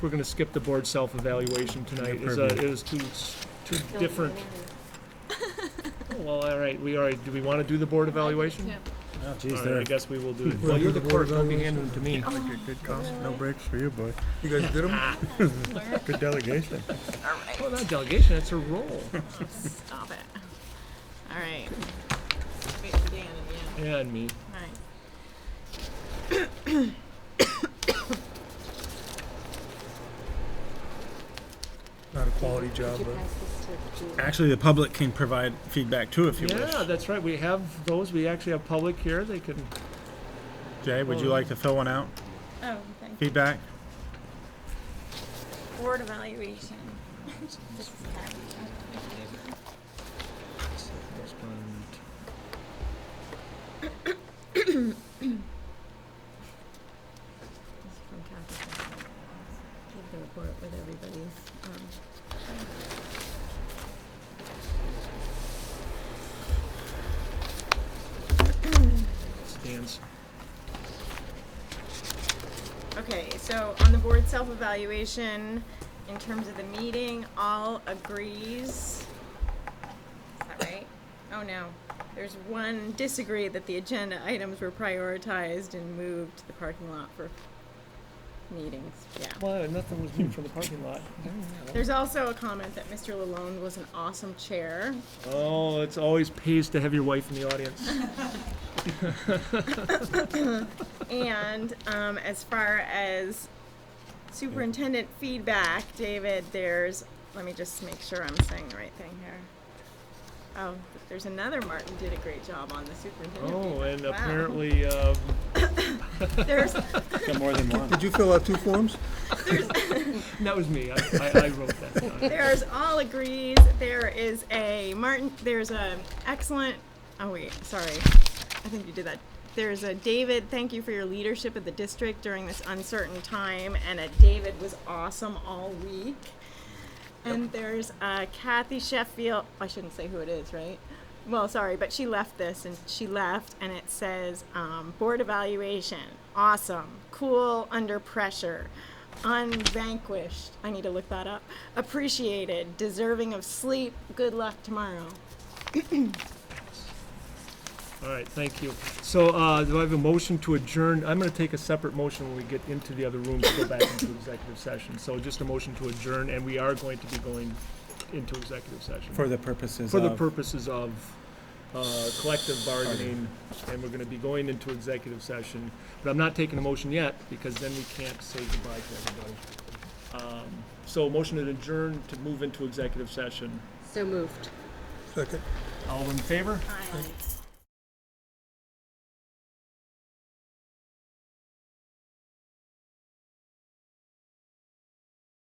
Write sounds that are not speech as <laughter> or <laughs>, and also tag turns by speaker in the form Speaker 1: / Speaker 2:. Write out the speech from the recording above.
Speaker 1: we're gonna skip the board self-evaluation tonight. It was, uh, it was too, s- too different. Well, all right, we are, do we wanna do the board evaluation?
Speaker 2: Oh,
Speaker 1: All
Speaker 2: geez,
Speaker 1: right, I
Speaker 2: there.
Speaker 1: guess we will do it. <laughs>
Speaker 2: Wanna
Speaker 1: Well,
Speaker 2: do
Speaker 1: you're the
Speaker 2: the board
Speaker 1: clerk, don't be handing them to <laughs> me.
Speaker 2: Like a good cost, no breaks for you, boy. You guys did 'em? Good delegation.
Speaker 3: All
Speaker 1: <laughs>
Speaker 3: right,
Speaker 1: Well, not delegation, it's a <laughs> role.
Speaker 3: stop it. All right. Wait for Dan at the end.
Speaker 1: And me.
Speaker 3: All right.
Speaker 2: Not a quality job,
Speaker 4: Did you
Speaker 2: but.
Speaker 4: pass this to Julie?
Speaker 2: Actually, the public can provide feedback too if you
Speaker 1: Yeah,
Speaker 2: wish.
Speaker 1: that's right, we have those, we actually have public here, they can,
Speaker 2: Jay, would you like to fill one out?
Speaker 5: Oh, thank you.
Speaker 2: Feedback?
Speaker 5: Board evaluation. <laughs>
Speaker 3: This is from Kathy. Give the report with everybody's, um,
Speaker 1: stands.
Speaker 5: Okay, so on the board self-evaluation, in terms of the meeting, all agrees. Is that right? Oh, no. There's one disagree that the agenda items were prioritized and moved to the parking lot for meetings, yeah.
Speaker 1: Well, nothing was moved from the parking lot.
Speaker 5: There's also a comment that Mr. Lalone was an awesome chair.
Speaker 1: Oh, it's always pays to have your wife in the audience.
Speaker 5: And um, as far as superintendent feedback, David, there's, let me just make sure I'm saying the right thing here. Oh, there's another Martin did a great job on the superintendent.
Speaker 1: Oh, and
Speaker 5: feedback. Wow.
Speaker 1: apparently, um,
Speaker 5: There's,
Speaker 2: Got more than one.
Speaker 6: Did you fill out two forms?
Speaker 1: that was me, I, I, I wrote that down.
Speaker 5: there's all agrees, there is a Martin, there's a excellent, oh wait, sorry, I think you did that. There's a David, thank you for your leadership of the district during this uncertain time, and a David was awesome all week. And there's uh, Kathy Sheffield. I shouldn't say who it is, right? Well, sorry, but she left this and she left, and it says um, board evaluation. Awesome. Cool under pressure. Unvanquished. I need to look that up. Appreciated. Deserving of sleep. Good luck tomorrow.
Speaker 1: All right, thank you. So, uh, do I have a motion to adjourn? I'm gonna take a separate motion when we get into the other room to go back into executive session. So just a motion to adjourn, and we are going to be going into executive session.
Speaker 2: For the purposes
Speaker 1: For the
Speaker 2: of,
Speaker 1: purposes of, uh, collective bargaining, and we're gonna be going into executive session. But I'm not taking a motion yet, because then we can't say goodbye to everybody. Um, So motion to adjourn to move into executive session.
Speaker 4: So moved.
Speaker 6: Second.
Speaker 1: All in favor?
Speaker 5: Bye.